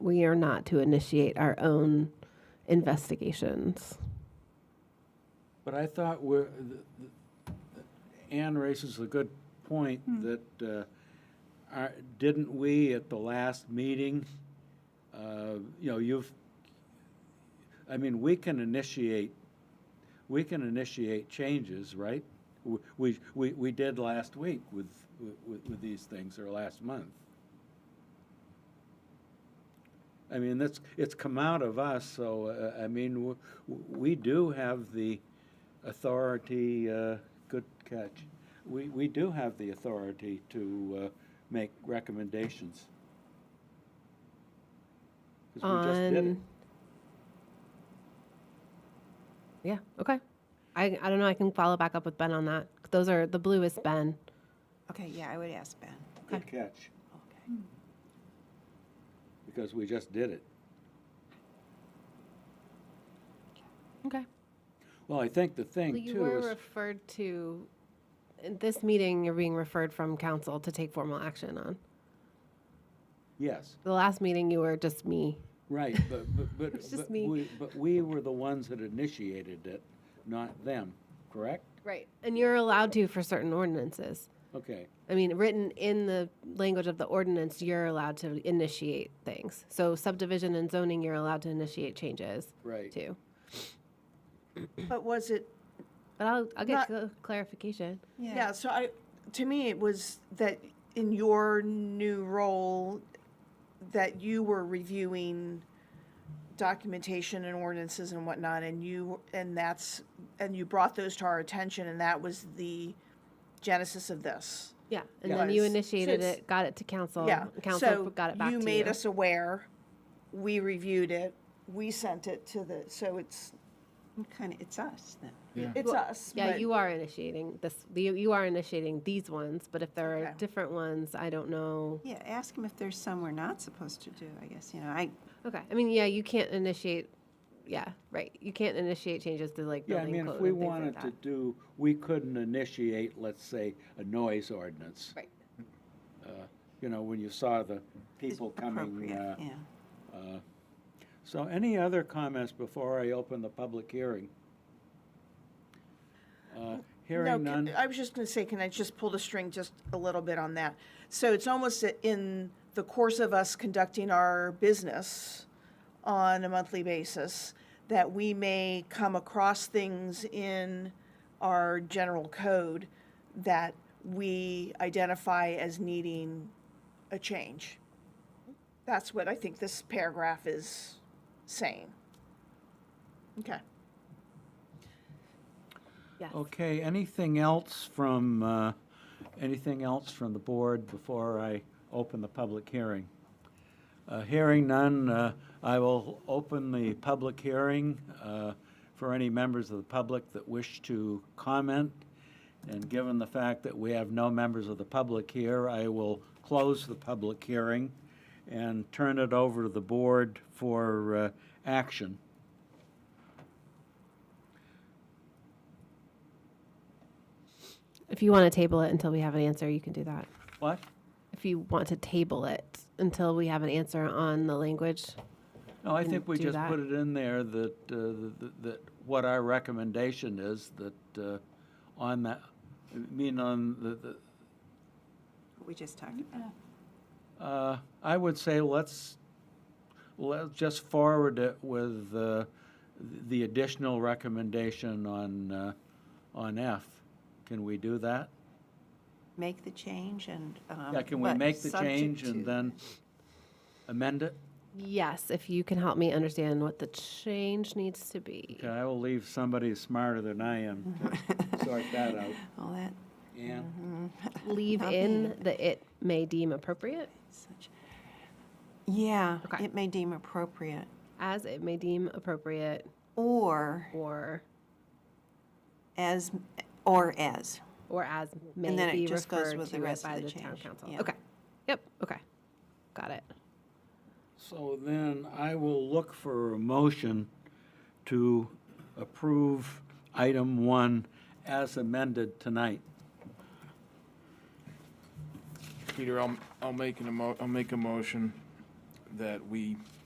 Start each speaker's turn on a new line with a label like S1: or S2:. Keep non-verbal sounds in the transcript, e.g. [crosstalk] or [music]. S1: we are not to initiate our own investigations.
S2: But I thought we're, th- th- Ann raises a good point that, uh, are- didn't we at the last meeting, uh, you know, you've, I mean, we can initiate, we can initiate changes, right? W- We, we, we did last week with, with, with these things, or last month. I mean, that's, it's come out of us, so, uh, I mean, w- w- we do have the authority, uh, good catch. We, we do have the authority to, uh, make recommendations. 'Cause we just did it.
S1: On. Yeah, okay. I, I don't know, I can follow back up with Ben on that. Those are, the blue is Ben.
S3: Okay, yeah, I would ask Ben.
S2: Good catch,
S3: Okay.
S2: because we just did it.
S1: Okay.
S2: Well, I think the thing
S1: You
S2: too
S1: were
S2: is,
S1: referred to, in this meeting, you're being referred from council to take formal action on.
S2: yes,
S1: The last meeting, you were just me. [laughs]
S2: right, but, but, but.
S1: It's just
S2: but
S1: me.
S2: we- But we were the ones that initiated it, not them, correct?
S1: Right. And you're allowed to for certain ordinances.
S2: Okay,
S1: I mean, written in the language of the ordinance, you're allowed to initiate things. So subdivision and zoning, you're allowed to initiate changes
S2: right.
S1: too.
S4: But was it,
S1: But I'll, I'll get
S4: Not-
S1: cl- clarification.
S3: Mm-hmm.
S4: yeah, so I, to me, it was that in your new role, that you were reviewing documentation and ordinances and whatnot, and you, and that's, and you brought those to our attention, and that was the genesis of this.
S1: Yeah. And then you
S4: Yes. So
S1: initiated
S4: it's-
S1: it, got it to council.
S4: Yeah.
S1: Council
S4: So
S1: got it back to you.
S4: You made us aware, we reviewed it, we sent it to the, so it's,
S3: Kind of, it's us then.
S4: it's us.
S1: Yeah,
S4: but-
S1: you are initiating this, you, you are initiating these ones, but if there are
S4: Okay.
S1: different ones, I don't know.
S3: Yeah, ask him if there's some we're not supposed to do, I guess, you know, I,
S1: Okay, I mean, yeah, you can't initiate, yeah, right, you can't initiate changes to like
S2: Yeah, I
S1: building
S2: mean, if
S1: code
S2: we
S1: and things like
S2: wanted to
S1: that.
S2: do, we couldn't initiate, let's say, a noise ordinance.
S1: Right.
S2: Uh, You know, when you saw the
S3: it's
S2: people coming.
S3: appropriate,
S2: uh,
S3: yeah.
S2: uh, So any other comments before I open the public hearing? Uh,
S4: No,
S2: Hearing
S4: can-
S2: none,
S4: I was just going to say, can I just pull the string just a little bit on that? So it's almost a- in the course of us conducting our business on a monthly basis, that we may come across things in our general code that we identify as needing a change. That's what I think this paragraph is saying. Okay.
S1: Yes.
S2: okay, anything else from, uh, anything else from the board before I open the public hearing? Uh, Hearing none, uh, I will open the public hearing uh, for any members of the public that wish to comment. And given the fact that we have no members of the public here, I will close the public hearing and turn it over to the board for uh, action.
S1: If you want to table it until we have an answer, you can do that.
S2: What?
S1: If you want to table it until we have an answer on the language,
S2: No, I
S1: Can
S2: think we
S1: do
S2: just
S1: that.
S2: put it in there that, uh, that, that what our recommendation is, that uh, on that, I mean, on the, the,
S3: What we just talked about.
S2: Uh, I would say let's, let's just forward it with uh, the additional recommendation on, uh, on F. Can we do that?
S3: Make the change and, um.
S2: Yeah, can we
S3: but
S2: make the
S3: subject
S2: change and
S3: to-
S2: then amend it?
S1: yes, if you can help me understand what the change needs to be.
S2: Okay, I will leave somebody smarter than I am to sort that out.
S3: All that,
S2: Ann?
S1: Leave
S3: Not
S1: in
S3: me.
S1: the it may deem appropriate,
S3: such. Yeah,
S1: Okay.
S3: it may deem appropriate,
S1: as it may deem appropriate,
S3: or
S1: or,
S3: as, or as.
S1: or as may
S3: then it
S1: be
S3: just goes
S1: referred
S3: with the
S1: to it
S3: rest
S1: by
S3: of the
S1: the town
S3: change,
S1: council.
S3: yeah.
S1: Okay, yep, okay, got it.
S2: So then I will look for a motion to approve item one as amended tonight.
S5: Peter, I'll, I'll make an emo, I'll make a motion that we